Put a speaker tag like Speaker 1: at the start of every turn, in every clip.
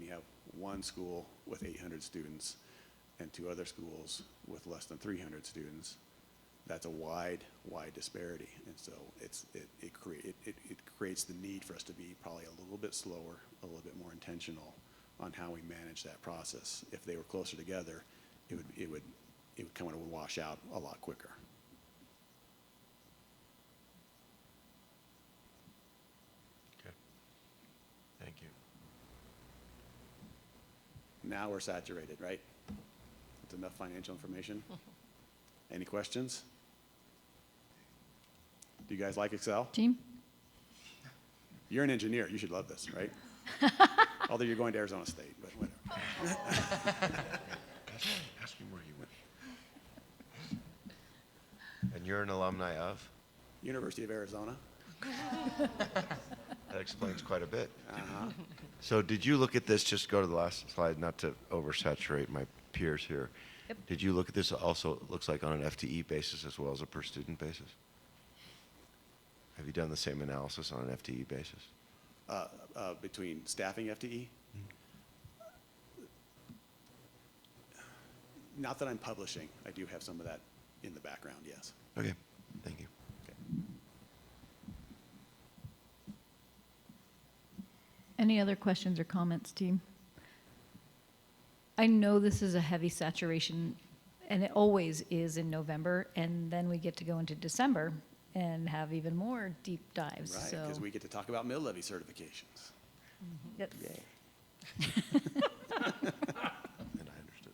Speaker 1: you have one school with 800 students and two other schools with less than 300 students, that's a wide, wide disparity. And so it's, it, it crea, it, it it creates the need for us to be probably a little bit slower, a little bit more intentional on how we manage that process. If they were closer together, it would, it would, it would kind of wash out a lot quicker.
Speaker 2: Okay. Thank you.
Speaker 1: Now we're saturated, right? That's enough financial information. Any questions? Do you guys like Excel?
Speaker 3: Team?
Speaker 1: You're an engineer, you should love this, right? Although you're going to Arizona State, but whatever.
Speaker 2: Ask- Ask me where you went. And you're an alumni of?
Speaker 1: University of Arizona.
Speaker 2: That explains quite a bit. So did you look at this, just go to the last slide, not to oversaturate my peers here.
Speaker 3: Yep.
Speaker 2: Did you look at this also, it looks like on an FTE basis as well as a per student basis? Have you done the same analysis on an FTE basis?
Speaker 1: uh, uh, between staffing E. FTE? Not that I'm publishing, I do have some of that in the background, yes.
Speaker 2: Okay, thank you.
Speaker 1: Okay.
Speaker 3: Any other questions or comments, team? I know this is a heavy saturation, and it always is in November, and then we get to go into December and have even more deep dives,
Speaker 1: Right,
Speaker 3: so.
Speaker 1: because we get to talk about mill levy certifications.
Speaker 3: Yep.
Speaker 2: And I understood.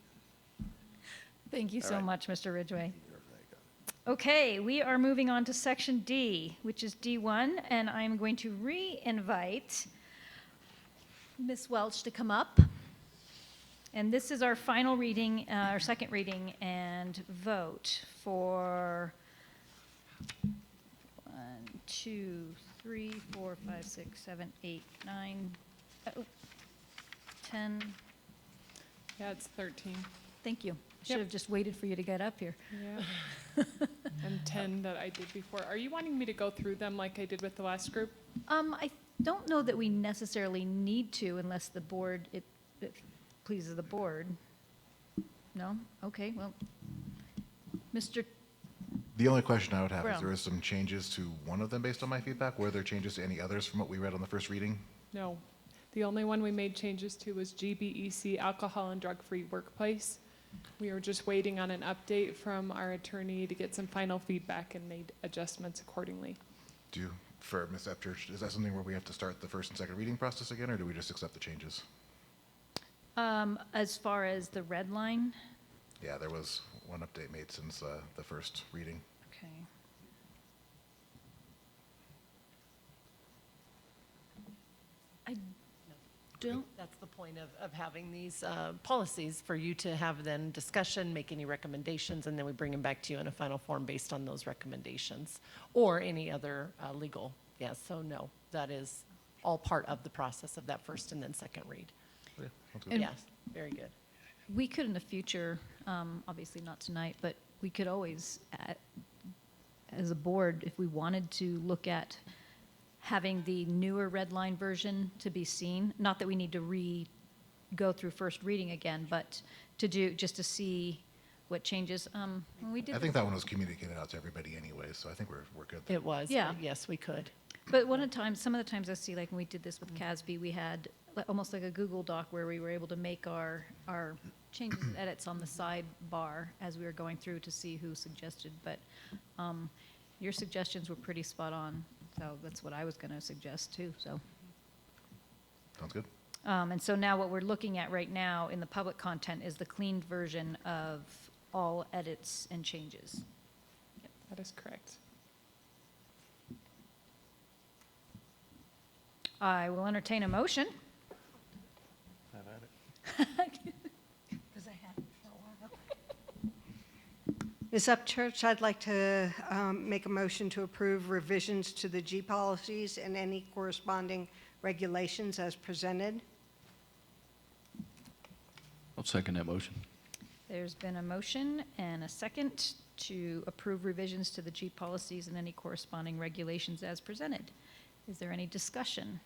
Speaker 3: Thank you
Speaker 1: All
Speaker 3: so
Speaker 1: right.
Speaker 3: much, Mr. Ridgway. Okay, we are moving on to section D, which is D1, and I'm going to re-invite Ms. Welch to come up. And this is our final reading, uh, our second reading and vote for one, two, three, four, five, six, seven, eight, nine, oh, 10.
Speaker 4: Yeah, it's 13.
Speaker 3: Thank you.
Speaker 4: Yep.
Speaker 3: Should have just waited for you to get up here.
Speaker 4: Yeah. and 10 that I did before. Are you wanting me to go through them like I did with the last group?
Speaker 3: Um, I don't know that we necessarily need to unless the board, it, it pleases the board. No? Okay, well, Mr.,
Speaker 5: The only question I would have is
Speaker 3: Brown.
Speaker 5: there is some changes to one of them based on my feedback. Were there changes to any others from what we read on the first reading?
Speaker 4: No. The only one we made changes to was GBEC, Alcohol and Drug-Free Workplace. We are just waiting on an update from our attorney to get some final feedback and made adjustments accordingly.
Speaker 5: Do, you- for Ms. Epchurch, is that something where we have to start the first and second reading process again, or do we just accept the changes?
Speaker 3: um, as far as the red line?
Speaker 5: Yeah, there was one update made since uh, the first reading.
Speaker 3: Okay. I don't,
Speaker 6: That's the point of, of having these uh, policies, for you to have then discussion, make any recommendations, and then we bring them back to you in a final form based on those recommendations, or any other uh, legal. Yes, so no, that is all part of the process of that first and then second read.
Speaker 5: Sounds good.
Speaker 3: And-
Speaker 6: Yes, very good.
Speaker 3: we could in the future, um, obviously not tonight, but we could always, uh, as a board, if we wanted to look at having the newer red line version to be seen, not that we need to re, go through first reading again, but to do, just to see what changes, um, when we did.
Speaker 5: I
Speaker 3: this-
Speaker 5: think that one was communicated out to everybody anyway, so I think we're, we're good. there.
Speaker 6: It was,
Speaker 3: Yeah.
Speaker 6: but yes, we could.
Speaker 3: But one of the times, some of the times I see, like when we did this with CASB, we had li- almost like a Google Doc where we were able to make our, our changes and edits on the sidebar as we were going through to see who suggested, but um, your suggestions were pretty spot on, so that's what I was going to suggest too, so.
Speaker 5: Sounds good?
Speaker 3: Um, And so now what we're looking at right now in the public content is the cleaned version of all edits and changes.
Speaker 4: That is correct.
Speaker 3: I will entertain a motion.
Speaker 7: Ms. Upchurch, I'd like to um, make a motion to approve revisions to the G policies and any corresponding regulations as presented.
Speaker 8: I'll second that motion.
Speaker 3: There's been a motion and a second to approve revisions to the G policies and any corresponding regulations as presented. Is there any discussion?